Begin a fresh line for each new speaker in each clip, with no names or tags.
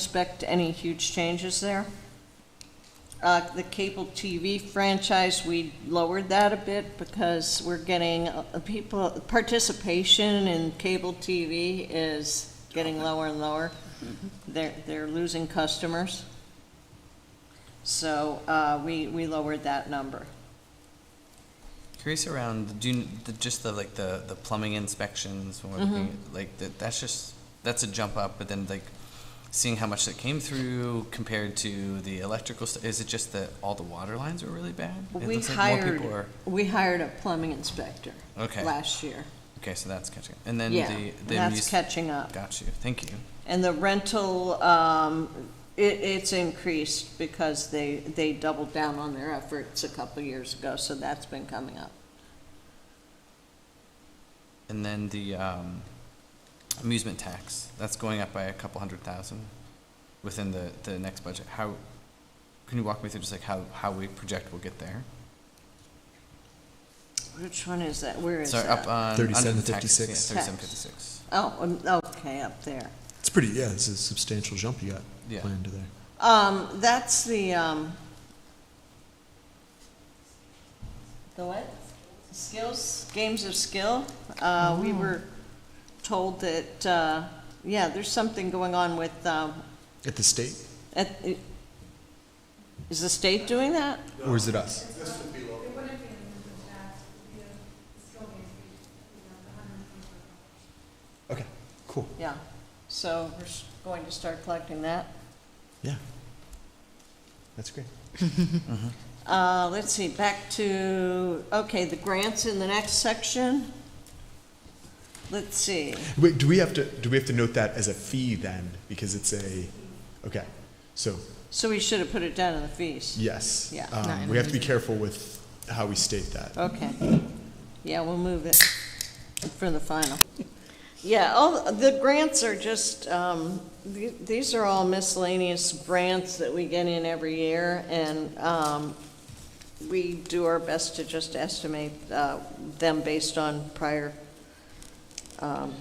expect any huge changes there. Uh, The cable TV franchise, we lowered that a bit because we're getting, uh, people, participation in cable TV is getting lower and lower. They're, they're losing customers. So uh, we, we lowered that number.
Curious around do you, the, just the like the, the plumbing inspections when we're looking
Mm-hmm.
at, like that that's just that's a jump up, but then like seeing how much that came through compared to the electrical st- is it just that all the water lines were really bad? It
We
looks like more
hired,
people are
we hired a plumbing inspector
okay.
last year.
Okay, so that's catching. And then
Yeah,
the the
that's
amuse-
catching up.
got you. Thank you.
And the rental, um, it, it's increased because they, they doubled down on their efforts a couple years ago, so that's been coming up.
And then the um, amusement tax that's going up by a couple hundred thousand within the the next budget. How can you walk me through just like how how we project we'll get there?
Which one is that? Where is
Sorry, up
that?
on.
3756.
Thirty-seven
Tax.
fifty-six.
Oh, um, okay, up there.
It's pretty, yeah, it's a substantial jump you got
Yeah.
planned there.
Um, that's the, um, the what? Skills, games of skill. Uh,
Mm.
we were told that, uh, yeah, there's something going on with, um,
At the state?
at, is the state doing that?
Or is it us? Okay, cool.
Yeah, so we're s- going to start collecting that.
Yeah. That's great.
Uh, let's see, back to, okay, the grants in the next section. Let's see,
Wait, do we have to, do we have to note that as a fee then? Because it's a, okay, so,
so we should have put it down in the fees.
yes.
Yeah.
Um,
Not in
We have to be
the-
careful with how we state that.
Okay, yeah, we'll move it for the final. Yeah, all, the grants are just, um, th- these are all miscellaneous grants that we get in every year, and, um, we do our best to just estimate, uh, them based on prior, um,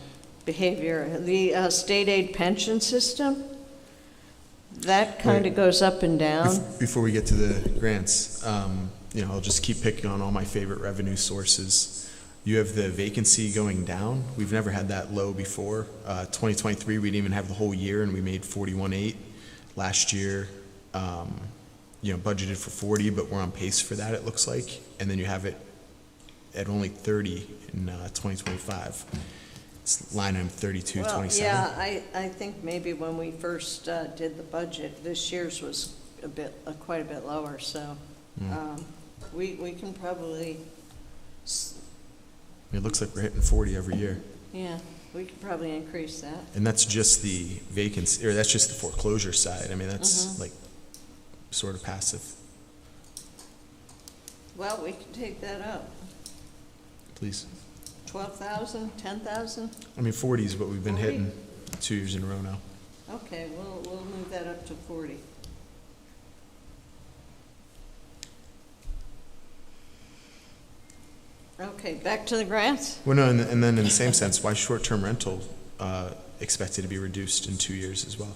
behavior. The, uh, state aid pension system, that kind of
Wait.
goes up and down.
Bef- Before we get to the grants, um, you know, I'll just keep picking on all my favorite revenue sources. You have the vacancy going down. We've never had that low before. Uh, 2023, we didn't even have the whole year, and we made 41.8. Last year, um, you know, budgeted for 40, but we're on pace for that, it looks like. And then you have it at only 30 in uh, 2025. It's line item
Well,
3227.
yeah, I, I think maybe when we first uh, did the budget, this year's was a bit, uh, quite a bit lower, so um, we, we can probably, s-
It looks like we're hitting 40 every year.
yeah, we could probably increase that.
And that's just the vacancy, or that's just the foreclosure side. I mean,
Mhm.
that's like sort of passive.
Well, we can take that up,
Please.
12,000, 10,000?
I mean, forty is what we've been
40?
hitting two years in a row now.
Okay, we'll, we'll move that up to 40. Okay, back to the grants?
Well, no, and, and then in the same sense, why short-term rental, uh, expected to be reduced in two years as well?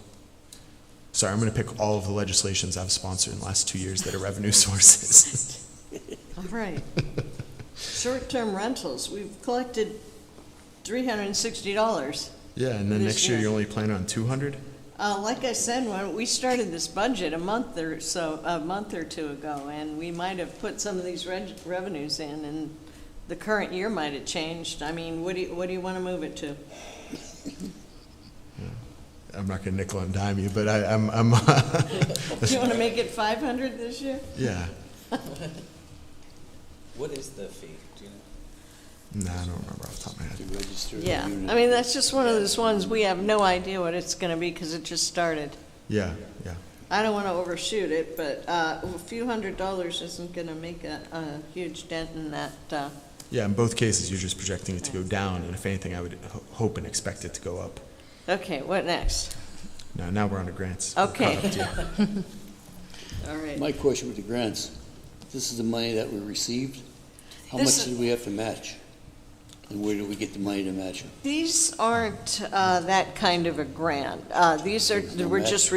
Sorry, I'm gonna pick all of the legislations I've sponsored in the last two years that are revenue sources.
All right. Short-term rentals, we've collected three hundred and sixty dollars.
Yeah, and then next year you only plan on two hundred?
Uh, like I said, when we started this budget a month or so, a month or two ago, and we might have put some of these reg- revenues in, and the current year might have changed. I mean, what do you, what do you want to move it to?
I'm not gonna nickel and dime you, but I, I'm, I'm,
Do you want to make it five hundred this year?
yeah.
What is the fee? Do you know?
Nah, I don't remember off the top of my head.
To register the
Yeah,
unit?
I mean, that's just one of those ones, we have no idea what it's going to be because it just started.
Yeah, yeah.
I don't want to overshoot it, but uh, a few hundred dollars isn't going to make a, a huge dent in that. uh,
Yeah, in both cases, you're just projecting it to go down, and if anything, I would ho- hope and expect it to go up.
Okay, what next?
Now, now we're on to grants. We're caught
Okay.
up to you.
All right.
My question with the grants, this is the money that we received? How
This
much
is-
did we have to match? And where do we get the money to match it?
These aren't uh, that kind of a grant. Uh, These are, we're just